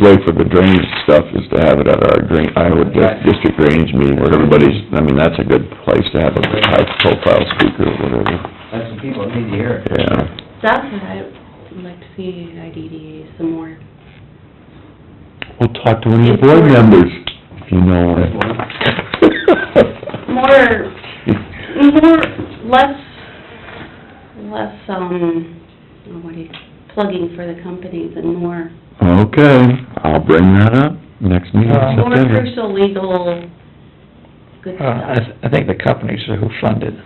way for the drainage stuff is to have it at our drain, Iowa Dis- District Drainage meeting where everybody's, I mean, that's a good place to have a high profile speaker or whatever, That's what people need to hear. yeah. That's what I'd like to see at IDDA some more. We'll talk to one of the board members, if you know one. More, more, less, less, um, what do you, plugging for the companies and more, Okay, I'll bring that up next meeting in more September. crucial legal, good Uh, I, stuff. th- I think the companies are who funded.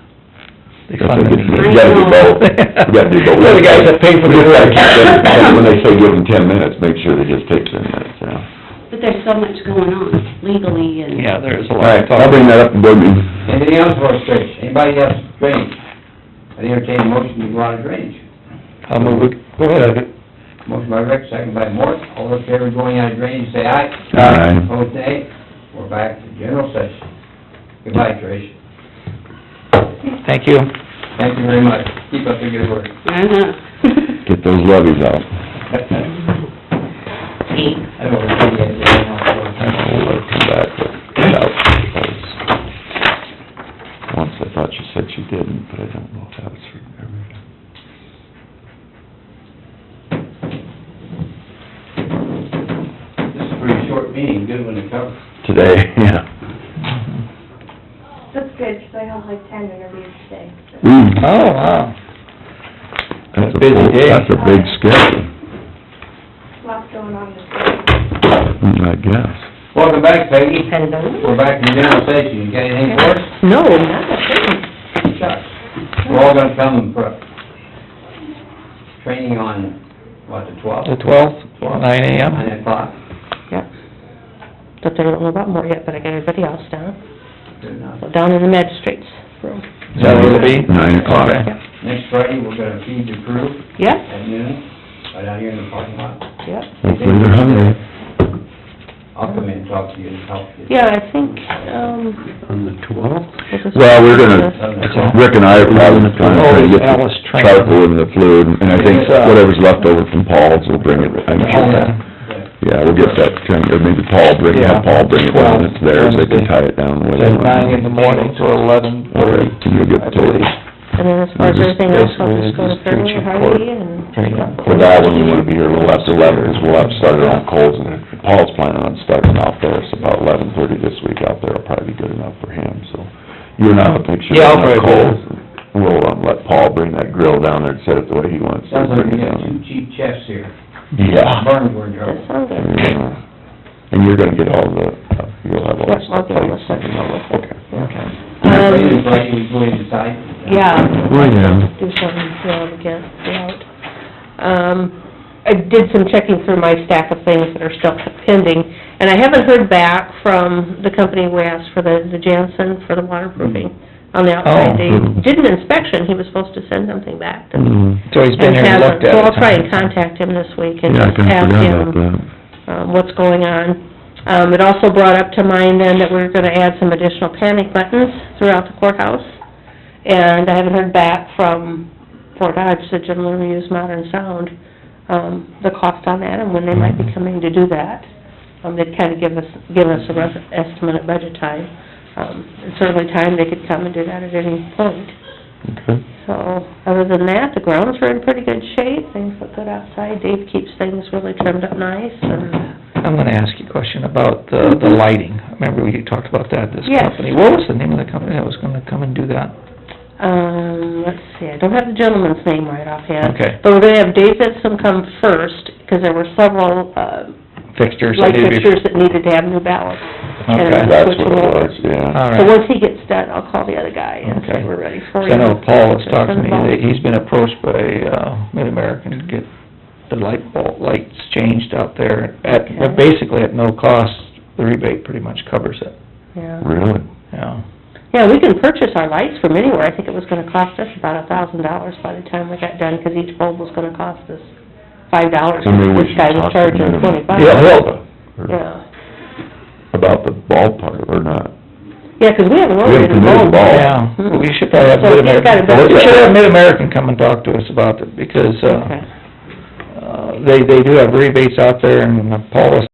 They That's what funded. we do. You gotta do both, you gotta do both. They're the guys that pay for We the just work. gotta keep them- When they say give them ten minutes, make sure they just take ten minutes, yeah. But there's so much going on legally and. Yeah, there is a All lot right, of I'll talk. bring that up in board meeting. Anything else for us, Trish? Anybody else, Trish? I entertain a motion to go out of drainage. I'll move it, go ahead. Motion by Rick, second by Mort. All those in favor of going out of drainage, say aye. Aye. Opposed, nay. We're back to general session. Goodbye, Trish. Thank you. Thank you very much. Keep up the good work. I know. Get those levies out. I don't really get it anymore. I'll let her come back, but get out, because once I thought she said she didn't, but I don't know if that was for every... This is a pretty short meeting, good one to cover. Today, yeah. That's good, 'cause I have like ten interviews today, so. Oh, wow. That's a Busy full- day. That's a big schedule, Uh, Lots going on this week. I guess. Welcome back, Peggy. We're back in general session. You got anything for us? No, Oh, not a thing. Chuck, we're all gonna come for training on, what, the The twelfth? twelfth, nine AM. Nine o'clock? Yep. But I don't know about more yet, but I got everybody else down, Good enough. so down in the magistrate's room. Is that where it'll be? Nine o'clock. Okay. Next Friday, we're gonna feed the crew Yep, at noon, right out here in the parking lot. yep. Hopefully they're hungry. I'll come in and talk to you and help you. Yeah, I think, um... On the twelfth? this is- Well, we're gonna, Seven o'clock. Rick and I are probably trying to try to get Alice the Train. charcoal and the fluid, and I think uh, whatever's left over from Paul's will bring it, I'm sure. that- Yeah, we'll get that, train, or maybe Paul bring, have Paul bring it down, it's theirs, they can tie it down with At nine in the it. morning till eleven Or thirty, you'll get I believe. the, And then as far as everything else, I'll just go to Fairway and Hardy and... Training on for that one, you wanna be here a little after eleven, because we'll have started on Coles, and Paul's planning on starting out there, so about eleven thirty this week out there will probably be good enough for him, so. You and I will make sure. Yeah, I'll we're not probably be Coles. We'll, um, let Paul bring that grill down there and set it the way he wants to Sounds like bring we it got down. two cheap chefs here. Yeah. Burns were in trouble. That sounds good. Yeah. And you're gonna get all the, you'll have all Yep, the I'll stuff. get all the stuff and all this. Okay. Okay. Friday, Um, Friday, we go inside. yeah. Well, yeah. do something to um, get it out. Um, I did some checking through my stack of things that are still pending, and I haven't heard back from the company we asked for the, the Jansen for the waterproofing Mm. on the outside. They Oh. did an inspection, he was supposed to send something back to me. Mm. So he's been here and looked at it. So I'll try and contact him this week and Yeah, I just kinda ask forgot him about that. um, what's going on. Um, it also brought up to mind then that we're gonna add some additional panic buttons throughout the courthouse. And I haven't heard back from Fort Dodge, the gentleman who used Modern Sound, um, the cost on that and when they might be coming to do that. Um, they'd kinda give us, give us a rough estimate at budget time. Um, it's certainly time they could come and do that at any point. Okay. So, other than that, the grounds are in pretty good shape, things look good outside, Dave keeps things really trimmed up nice, and I'm gonna ask you a question about the, the lighting. Remember we talked about that, this Yes. company? What was the name of the company that was gonna come and do that? Um, let's see, I don't have the gentleman's name right offhand. Okay. But we're gonna have Dave Benson come first, 'cause there were several, uh, Fixtures? that light need to be- fixtures that needed to have new ballots. and Okay. I'm That's switching what it over. was, yeah. All So right. once he gets done, I'll call the other guy and say Okay. we're ready for So you. I know Paul was talking to me, Involved. that he's been approached by, uh, Mid-American to get the light bulb, lights changed out there at, Okay. basically at no cost. The rebate pretty much covers it, Yeah. Really? yeah. Yeah, we can purchase our lights from anywhere, I think it was gonna cost us about a thousand dollars by the time we got done, 'cause each bulb was gonna cost us five dollars. Maybe we This should guy talk to was charging them. twenty-five. Yeah, well, or Yeah. about the ballpark or not. Yeah, 'cause we haven't haven't ordered a committed bulb. bulb. Yeah, Hmm. we should probably have So he's got Mid-American, a we better- should have Mid-American come and talk to us about it, because, Okay. uh, uh, they, they do have rebates out there, and Paul was